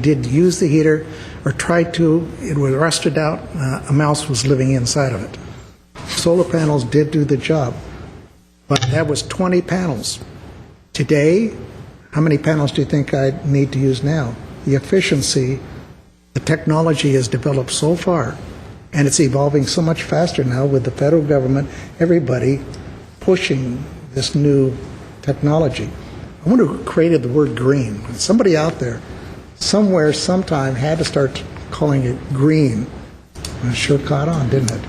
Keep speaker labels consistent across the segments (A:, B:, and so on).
A: did use the heater or tried to, it was rusted out, uh, a mouse was living inside of it. Solar panels did do the job, but that was 20 panels. Today, how many panels do you think I need to use now? The efficiency, the technology has developed so far, and it's evolving so much faster now with the federal government, everybody pushing this new technology. I wonder who created the word green. Somebody out there, somewhere, sometime, had to start calling it green. And it sure caught on, didn't it?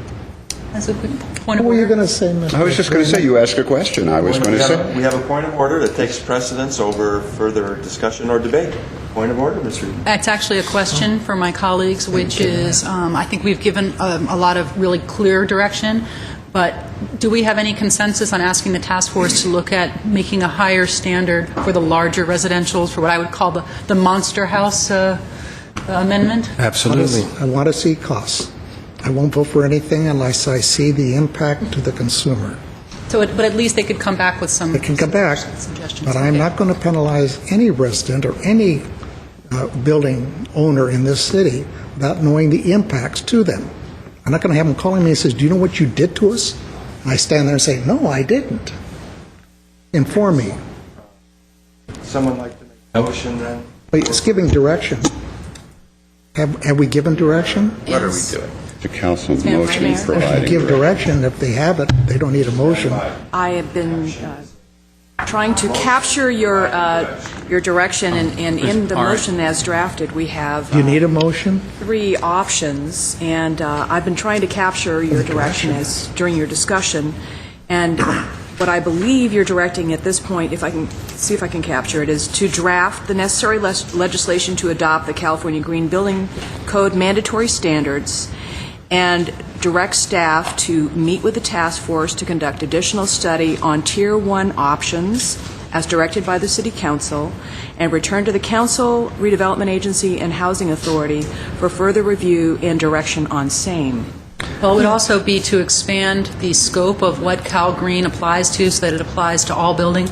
B: That's a quick point
A: What
B: of
A: were you going
B: order.
A: to say, Mr.
C: I was just going to say, you asked a question, I was going
D: We
C: to
D: have a-
C: say.
D: We have a point of order that takes precedence over further discussion or debate. Point of order, Mr. Eden.
B: That's actually a question for my colleagues, which is, um, I think we've given um, a lot of really clear direction, but do we have any consensus on asking the task force to look at making a higher standard for the larger residentials, for what I would call the the monster house uh, amendment?
E: Absolutely.
A: I want to see costs. I won't vote for anything unless I see the impact to the consumer.
B: So, it- but at least they could come back with some...
A: They can come back,
B: Suggestions.
A: but I'm
B: Okay.
A: not going to penalize any resident or any uh, building owner in this city without knowing the impacts to them. I'm not going to have them calling me and says, "Do you know what you did to us?" And I stand there and say, "No, I didn't." Inform me.
D: Someone like to make a motion then?
A: But it's giving direction. Have have we given direction?
B: What are we doing?
C: The council
B: Madam
C: motion
B: Mayor.
C: providing.
A: Give direction. If they have it, they don't need a motion.
F: I have been uh, trying to capture your, uh, your direction, and and in the motion as drafted, we have
A: Do you need
F: uh,
A: a motion?
F: three options, and uh, I've been trying to capture your direction as, during your discussion, and what I believe you're directing at this point, if I can, see if I can capture it, is to draft the necessary les- legislation to adopt the California Green Building Code mandatory standards, and direct staff to meet with the task force to conduct additional study on Tier 1 options as directed by the City Council, and return to the Council, Redevelopment Agency, and Housing Authority for further review and direction on same.
B: Well, it would also be to expand the scope of what Cal Green applies to, so that it applies to all building.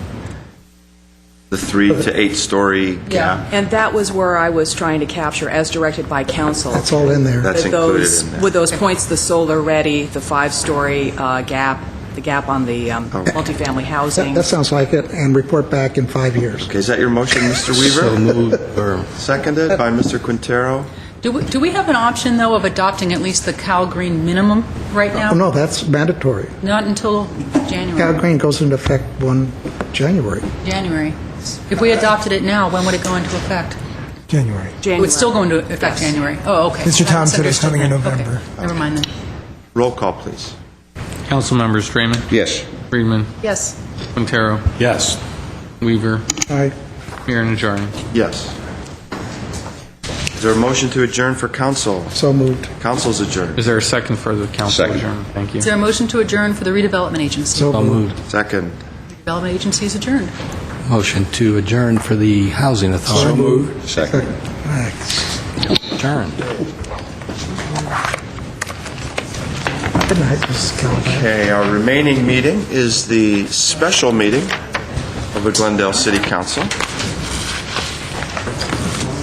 D: The three to eight-story gap.
F: And that was where I was trying to capture, as directed by Council.
A: It's all in there.
D: That's
F: With
D: included
F: those-
D: in there.
F: With those points, the solar-ready, the five-story uh, gap, the gap on the um, multifamily
A: That
F: housing.
A: that sounds like it, and report back in five years.
D: Okay, is that your motion, Mr. Weaver?
E: So moved, or-
D: Seconded by Mr. Quintero.
B: Do we, do we have an option, though, of adopting at least the Cal Green minimum right now?
A: Oh, no, that's mandatory.
B: Not until
A: Cal
B: January.
A: Green goes into effect 1 January.
B: January. If we adopted it now, when would it go into effect?
G: January.
B: It would still go into
F: January.
B: effect
F: Yes.
B: January. Oh, okay.
G: Mr. Tom said it's
B: Misunderstood
G: coming in
B: then. Okay.
G: November.
B: Never mind then.
D: Roll call, please.
H: Council members Draymond.
C: Yes.
H: Friedman.
B: Yes.
H: Quintero.
E: Yes.
H: Weaver.
A: I
H: Mayor Najarian.
D: Yes. Is there a motion to adjourn for council?
A: so moved.
D: Council's adjourned.
H: Is there a second for the council
C: Second.
H: adjournment? Thank you.
B: Is there a motion to adjourn for the redevelopment agency?
A: So moved.
D: Second.
B: Redevelopment agency is adjourned.
E: Motion to adjourn for the Housing Authority.
C: Second.
A: Thanks.
E: Adjourn.
A: Good night, Mrs. Calabash.
D: Okay, our remaining meeting is the special meeting of the Glendale City Council.